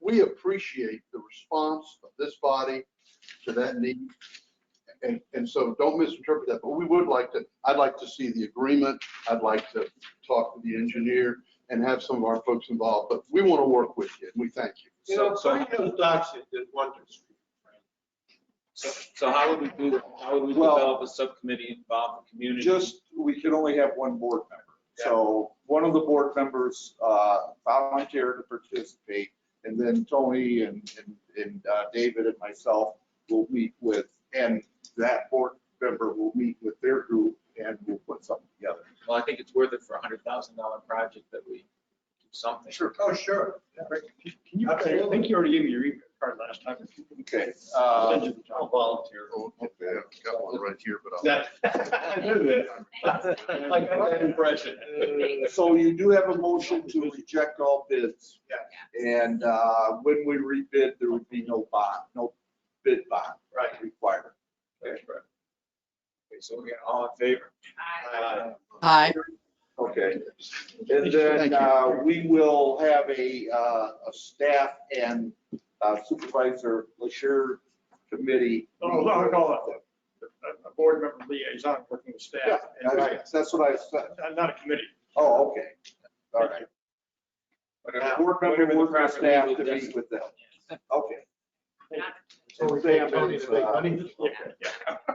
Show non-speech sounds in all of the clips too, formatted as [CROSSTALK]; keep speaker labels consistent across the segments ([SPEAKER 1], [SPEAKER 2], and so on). [SPEAKER 1] we appreciate the response of this body to that need. And, and so don't misinterpret that, but we would like to, I'd like to see the agreement. I'd like to talk to the engineer and have some of our folks involved, but we want to work with you and we thank you.
[SPEAKER 2] You know,
[SPEAKER 3] So- so-
[SPEAKER 2] Pine Hill docks it at Wonder Street.
[SPEAKER 3] So so how would we do, that? how would we
[SPEAKER 4] Well-
[SPEAKER 3] develop a subcommittee, involve the community?
[SPEAKER 4] Just, we could only have one board member. So one of the board members uh, volunteered to participate, and then Tony and, and- and uh, David and myself will meet with, and that board member will meet with their group, and we'll put something together.
[SPEAKER 3] Well, I think it's worth it for a hundred thousand dollar project that we do something.
[SPEAKER 4] Sure.
[SPEAKER 2] Oh, sure.
[SPEAKER 5] Can you, I think you already gave me your email card last time.
[SPEAKER 4] Okay. uh,
[SPEAKER 5] I'll volunteer.
[SPEAKER 1] Got one right here, but
[SPEAKER 4] [LAUGHS]
[SPEAKER 5] That, I knew that. I got that impression.
[SPEAKER 4] So you do have a motion to reject all bids.
[SPEAKER 2] Yeah.
[SPEAKER 4] And uh, when we rebid, there would be no bond, no bid bond
[SPEAKER 2] Right.
[SPEAKER 4] required.
[SPEAKER 3] Okay, so we're getting all in favor?
[SPEAKER 2] Uh,
[SPEAKER 6] Aye.
[SPEAKER 4] Okay. And then uh, we will have a, uh, a staff and uh, supervisor, Lashir committee.
[SPEAKER 5] No, no, no, a, a board member liaison working with staff.
[SPEAKER 4] Yeah, that's- That's what I said.
[SPEAKER 5] Not- Not a committee.
[SPEAKER 4] Oh, okay. All right.
[SPEAKER 3] Whatever-
[SPEAKER 4] Board member
[SPEAKER 3] whatever the
[SPEAKER 4] work with
[SPEAKER 3] proper
[SPEAKER 4] staff
[SPEAKER 3] legal
[SPEAKER 4] to meet
[SPEAKER 3] definition-
[SPEAKER 4] with them. Okay.
[SPEAKER 1] So
[SPEAKER 4] And Sam
[SPEAKER 1] Tony's
[SPEAKER 4] is,
[SPEAKER 1] big
[SPEAKER 4] uh,
[SPEAKER 1] money?
[SPEAKER 5] Yeah, yeah.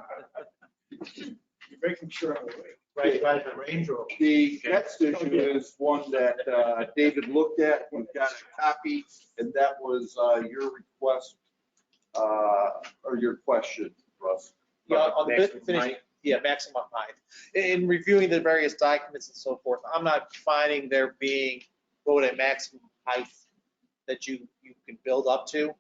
[SPEAKER 5] You're making sure I'm awake.
[SPEAKER 2] Right, right, the Range Rover.
[SPEAKER 4] The next issue is one that uh, David looked at, we've got a copy, and that was uh, your request, uh, or your question, Russ.
[SPEAKER 7] Yeah, on the
[SPEAKER 3] Next,
[SPEAKER 7] finish,
[SPEAKER 3] Mike.
[SPEAKER 7] yeah, maximum height. In reviewing the various documents and so forth, I'm not finding there being, quote, a maximum height that you, you can build up to.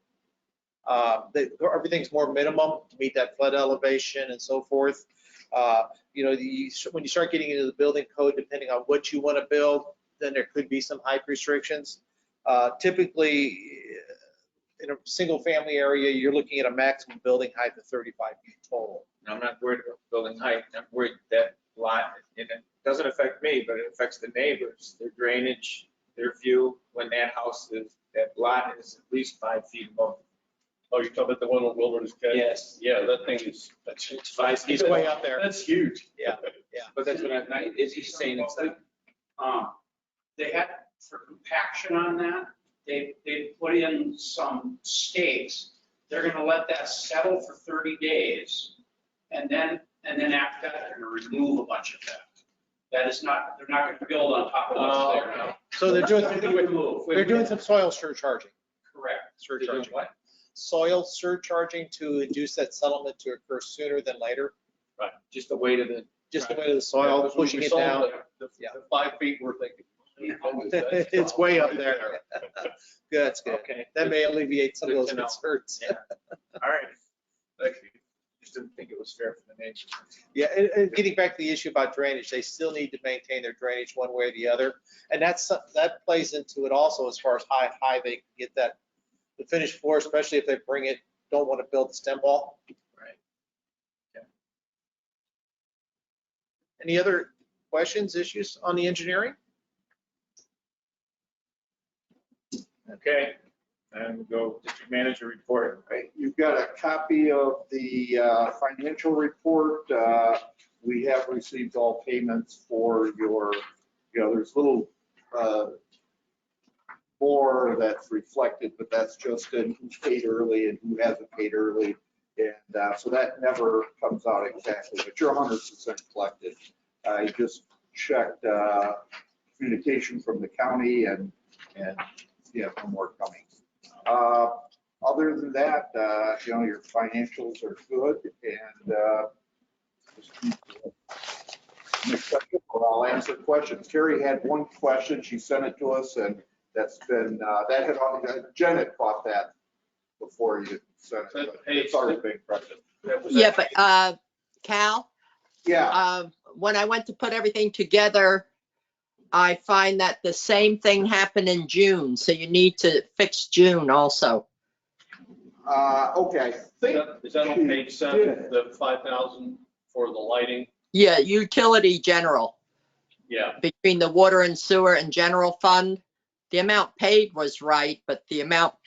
[SPEAKER 7] Uh, that, everything's more minimum to meet that flood elevation and so forth. Uh, you know, the, when you start getting into the building code, depending on what you want to build, then there could be some height restrictions. Uh, typically, uh, in a single-family area, you're looking at a maximum building height of 35 feet total.
[SPEAKER 3] And I'm not worried about building height, I'm worried that lot, and it doesn't affect me, but it affects the neighbors, their drainage, their view, when that house is, that lot is at least five feet above.
[SPEAKER 8] Oh, you're talking about the one on Wilderness Cut?
[SPEAKER 3] Yes.
[SPEAKER 8] Yeah, that thing is, that's,
[SPEAKER 3] It's five feet.
[SPEAKER 7] He's way up there.
[SPEAKER 8] that's huge.
[SPEAKER 7] Yeah.
[SPEAKER 3] But that's what I'm, is he saying it's like,
[SPEAKER 9] Um, they had, for compaction on that, they, they put in some stakes. They're gonna let that settle for thirty days. And then, and then after that, they're gonna remove a bunch of that. That is not, they're not gonna build on top of what's there now.
[SPEAKER 7] So they're
[SPEAKER 3] [LAUGHS]
[SPEAKER 9] They're
[SPEAKER 7] doing,
[SPEAKER 9] gonna remove.
[SPEAKER 7] they're doing some soil surcharging,
[SPEAKER 9] Correct.
[SPEAKER 3] they're doing
[SPEAKER 7] surcharging.
[SPEAKER 3] what?
[SPEAKER 7] Soil surcharging to induce that settlement to occur sooner than later,
[SPEAKER 3] Just the weight of the
[SPEAKER 7] just the way of the soil,
[SPEAKER 8] Because when we
[SPEAKER 7] pushing it
[SPEAKER 8] sold
[SPEAKER 7] down. [LAUGHS]
[SPEAKER 8] The the-
[SPEAKER 7] Yeah.
[SPEAKER 8] the five feet we're
[SPEAKER 7] [LAUGHS]
[SPEAKER 8] thinking.
[SPEAKER 9] Yeah.
[SPEAKER 7] It's way up there. [LAUGHS] Good, That's good.
[SPEAKER 3] Okay.
[SPEAKER 7] That may alleviate some of
[SPEAKER 3] Good
[SPEAKER 7] those
[SPEAKER 3] to know.
[SPEAKER 7] concerns.
[SPEAKER 3] Yeah. All right. Thank you. Just didn't think it was fair for the neighbors.
[SPEAKER 7] Yeah, and, and getting back to the issue about drainage, they still need to maintain their drainage one way or the other. And that's, some- that plays into it also as far as how high they can get that, the finished floor, especially if they bring it, don't want to build the stem wall.
[SPEAKER 3] Right. Yeah.
[SPEAKER 7] Any other questions, issues on the engineering?
[SPEAKER 3] Okay, and we go district manager report.
[SPEAKER 4] Right, You've got a copy of the uh, financial report. Uh, We have received all payments for your, you know, there's little uh, more that's reflected, but that's just in who's paid early and who hasn't paid early. And uh, so that never comes out exactly, but you're 100% collected. I just checked uh, communication from the county and, and, yeah, no more coming. Uh, other than that, uh, you know, your financials are good and, uh, just keep Next question, or I'll answer questions. Carrie had one question. She sent it to us and that's been, uh, that had, Jen had caught that before you sent it. but It's already been corrected.
[SPEAKER 6] Yeah, but, uh, Cal,
[SPEAKER 4] Yeah,
[SPEAKER 6] uh, when I went to put everything together, I find that the same thing happened in June, so you need to fix June also.
[SPEAKER 4] uh, okay, I
[SPEAKER 8] Is
[SPEAKER 4] think
[SPEAKER 8] that- Is that on page seven, the five thousand for the lighting?
[SPEAKER 6] Yeah, utility general,
[SPEAKER 8] Yeah,
[SPEAKER 6] between the water and sewer and general fund. The amount paid was right, but the amount